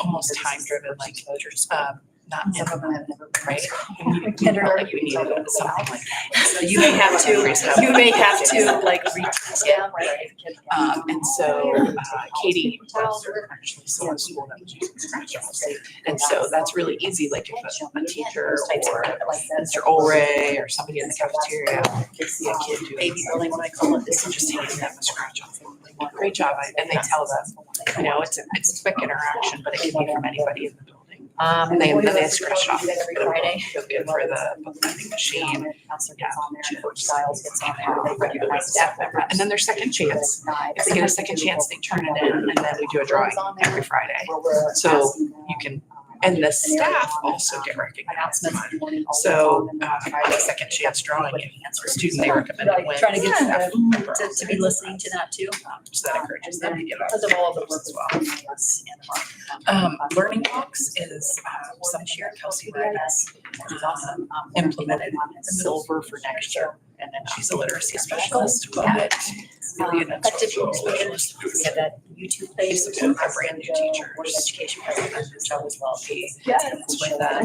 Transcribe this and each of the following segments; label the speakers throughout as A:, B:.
A: almost time driven, like, um, not some of them have never been, right?
B: Kindergarten.
A: Like, you need something like that. So
B: You may have to, you may have to like reteach them, right?
A: Um, and so uh, Katie was actually someone school that was using scratch offs. And so that's really easy, like if a- a teacher or Mr. Olray or somebody in the cafeteria can see a kid doing baby building, what I call it, this is just handing them a scratch off. Great job, I- and they tell them, you know, it's, it's quick interaction, but it can be from anybody in the building.
B: Um,
A: And they,
B: and
A: and they
B: then
A: scratch
B: scratch
A: it off.
B: off every Friday.
A: Feel good for the book lending machine.
B: Yeah.
A: Coach Styles gets on there, regular staff member. And then their second chance if they get a second chance, they turn it in and then we do a drawing every Friday.
B: So
A: You can, and the staff also get recognized. So, uh, a second chance drawing, if a student they recommend it wins.
B: Trying to get
A: staff
B: them
A: member
B: to,
A: also
B: to be
A: gets
B: listening
A: it.
B: to that too.
A: Um, So that encourages them to get up.
B: Because of all the work
A: as
B: as
A: well.
B: well.
A: Um, learning walks is, um, some year Kelsey Reyes is awesome, um, implemented silver for next year. And then she's a literacy specialist, but really an
B: But to
A: instructional
B: be
A: specialist.
B: engaged, we have that YouTube page.
A: She's Um, a brand new teacher.
B: Board of Education president, so as well.
A: She
B: Yeah.
A: helps with that,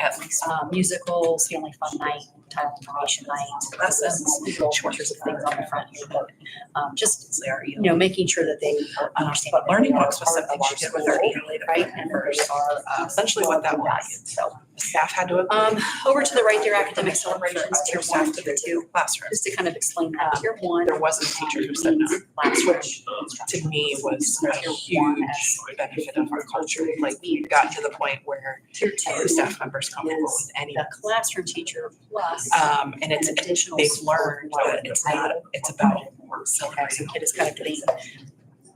A: at least
B: Um, musicals, family fun night, time information night, lessons, shorts of things on the front here, but, um, just,
A: since they are,
B: you know, making sure that they are understanding.
A: Uh, But learning
B: that they
A: walks was
B: are
A: something
B: part
A: she did
B: of our
A: with our
B: school,
A: annual
B: Right,
A: aid
B: and that
A: members.
B: they are, uh,
A: Essentially what that was,
B: so.
A: the staff had to.
B: Um, over to the right, there, academic celebrations, tier one, tier two,
A: Classroom.
B: just to kind of explain that, tier one.
A: There wasn't a teacher who said no,
B: Last
A: which to me was a huge benefit of our culture. Like we got to the point where
B: Tier
A: every
B: two,
A: staff member's comfortable with any.
B: the classroom teacher plus.
A: Um, and it's,
B: an additional
A: they've
B: support
A: learned
B: while
A: that it's not, it's about celebrating.
B: It is kind of being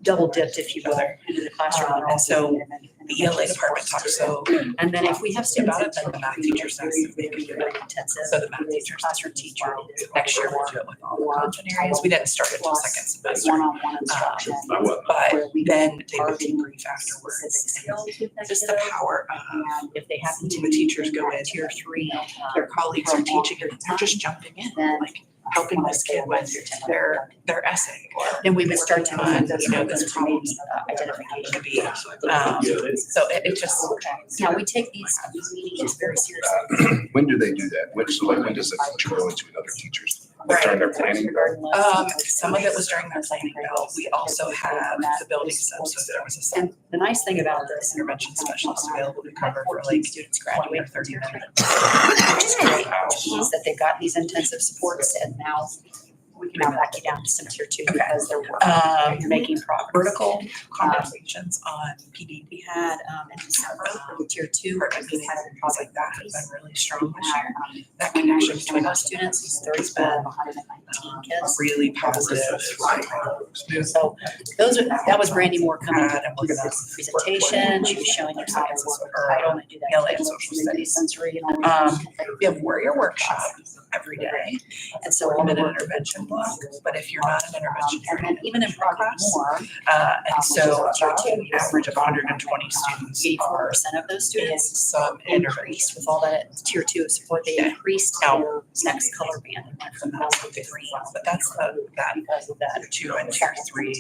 B: double dipped, if you will, into the classroom.
A: Um, and so The ELA department talked so,
B: And then if we have students.
A: about it, then the math teachers ask if they can do it.
B: Intensive.
A: so the math teachers,
B: Classroom teacher.
A: next year we'll do it with all the content areas. We didn't start it till second semester. Uh,
B: One-on-one instruction.
A: But
B: where we
A: then they would
B: target
A: debrief afterwards.
B: Specific skills with that
A: Just the
B: kiddo.
A: power of
B: And if they happen to.
A: the teachers go in,
B: Tier three.
A: their colleagues are teaching, and they're just jumping in, like helping this kid with
B: uh,
A: their, their essay or
B: Then we would start to.
A: on, you know, this problem
B: uh, Identification.
A: to be. Um, so it, it just,
B: Now, we take these these meetings very seriously.
C: When do they do that? Which, like, when does the teacher go into another teacher's? Like during their planning?
A: um, some of it was during their planning bill. We also had the building sub, so there was a sub
B: And the nice thing about this
A: intervention specialist available to cover for like
B: students
A: twenty or
B: graduate,
A: thirty minutes.
B: which is great, is that they've got these intensive supports and now we can now back you down to some tier two because they're working,
A: Um,
B: you're making progress.
A: vertical conversations on PD
B: We had, um, in December, um, tier two,
A: or I
B: we
A: mean,
B: had a
A: things
B: project
A: like that have been really strong this
B: that,
A: year.
B: um,
A: That connection
B: between
A: between
B: our
A: us
B: students, these
A: has
B: thirty-one,
A: been
B: one hundred and nineteen
A: um,
B: kids.
A: really positive.
B: So those are, that was Brandy Moore coming
A: Uh, that
B: to
A: was
B: do this presentation, she was showing her science
A: Or,
B: I don't do that.
A: LA social studies.
B: Sensory and all that.
A: Um, we have warrior workshop every day
B: And so all
A: and
B: the
A: then an
B: work.
A: intervention block, but if you're not an intervention,
B: um,
A: you're
B: And
A: in
B: then even in Project
A: class.
B: More,
A: Uh, and so about an average of hundred and twenty students
B: eighty-four
A: are
B: percent of those
A: in
B: students
A: some
B: increased
A: intervention.
B: with all that tier two of support, they
A: Yeah.
B: increased
A: Now-
B: their next color band and went from that to green.
A: But that's the, that
B: Because of that,
A: two and tier three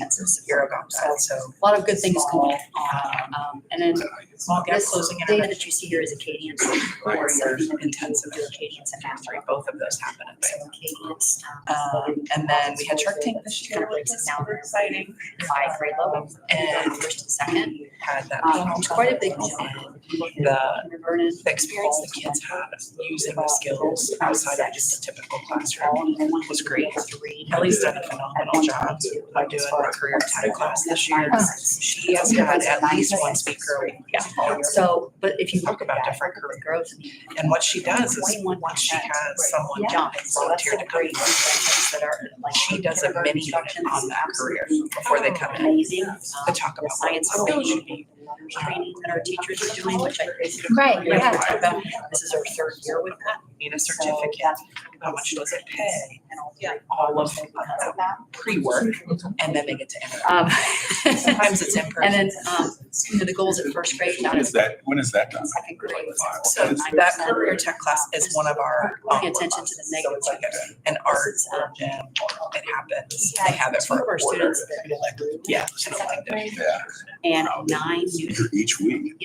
A: year about that, so.
B: a lot of good things going on. Um, and then
A: Small gap
B: this
A: closing
B: data
A: intervention,
B: that you see here is Acadians.
A: Warrior intensive
B: Intensive Acadians and math
A: three, both of those happen at
B: So Acadians.
A: Um, and then we had Shark Tank this year, which is super exciting.
B: Five grade level.
A: And
B: First and second.
A: Had that.
B: Um, it's quite a big.
A: The,
B: Vernon.
A: the experience the kids had using the skills outside of just a typical classroom was great. Ellie's done a phenomenal job of doing the career tech class this year. She has had at least one speaker. a week.
B: So, but if you
A: Talk
B: look
A: about
B: about
A: different
B: different
A: career
B: growth.
A: And what she does is,
B: Twenty-one
A: once she
B: percent.
A: has someone
B: Yeah.
A: jump and volunteer to come,
B: that are like.
A: she does a mini unit on that career before they come in
B: Amazing. Um,
A: to talk about what
B: Science
A: something should be.
B: training that our teachers are doing, which I think.
D: Right, yeah.
B: This is our third year with that.
A: Need a
B: So
A: certificate,
B: that's-
A: how much does it pay,
B: And all
A: Yeah. all of
B: because
A: that
B: of that.
A: pre-work, and then they get to interact.
B: Um,
A: Sometimes it's in
B: And
A: person.
B: then, um, you know, the goals at first grade, now
C: When is that, when is that done?
B: second grade.
A: So that career tech class is one of our. um,
B: Paying attention to the
A: So it's like
B: negative.
A: an art or a gym, or it happens, they have it
B: Two
A: for.
B: of our students that
A: Yeah. so like that.
C: Yeah,
B: and nine new
C: each week.